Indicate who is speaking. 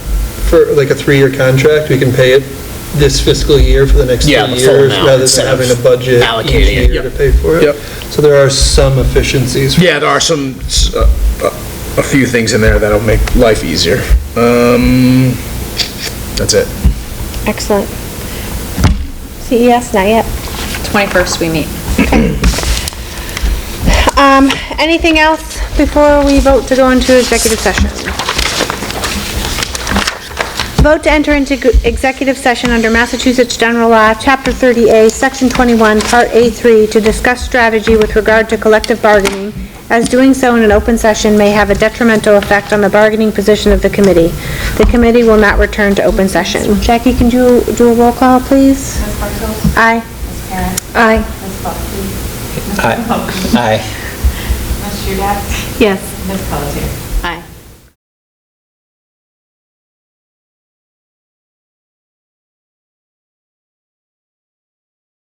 Speaker 1: for like a three-year contract, we can pay it this fiscal year for the next three
Speaker 2: Yeah, the full
Speaker 1: years,
Speaker 2: amount
Speaker 1: rather than
Speaker 2: instead of
Speaker 1: having a budget each
Speaker 2: allocating it.
Speaker 1: year to pay for it.
Speaker 3: Yep.
Speaker 1: So there are some efficiencies.
Speaker 3: Yeah, there are some, s- uh, a few things in there that'll make life easier. Um, that's it.
Speaker 4: Excellent. CES, not yet.
Speaker 5: 21st we meet.
Speaker 4: Um, anything else before we vote to go into executive session? Vote to enter into g- executive session under Massachusetts General Law, Chapter 30A, Section 21, Part A3, to discuss strategy with regard to collective bargaining, as doing so in an open session may have a detrimental effect on the bargaining position of the committee. The committee will not return to open session. Jackie, can you do a roll call, please?
Speaker 6: Ms. Bartels?
Speaker 4: Aye.
Speaker 6: Ms. Karen?
Speaker 4: Aye.
Speaker 6: Ms. Buckley?
Speaker 2: Aye.
Speaker 6: Ms. Hudak?
Speaker 4: Yes.
Speaker 6: Ms. Pelletier?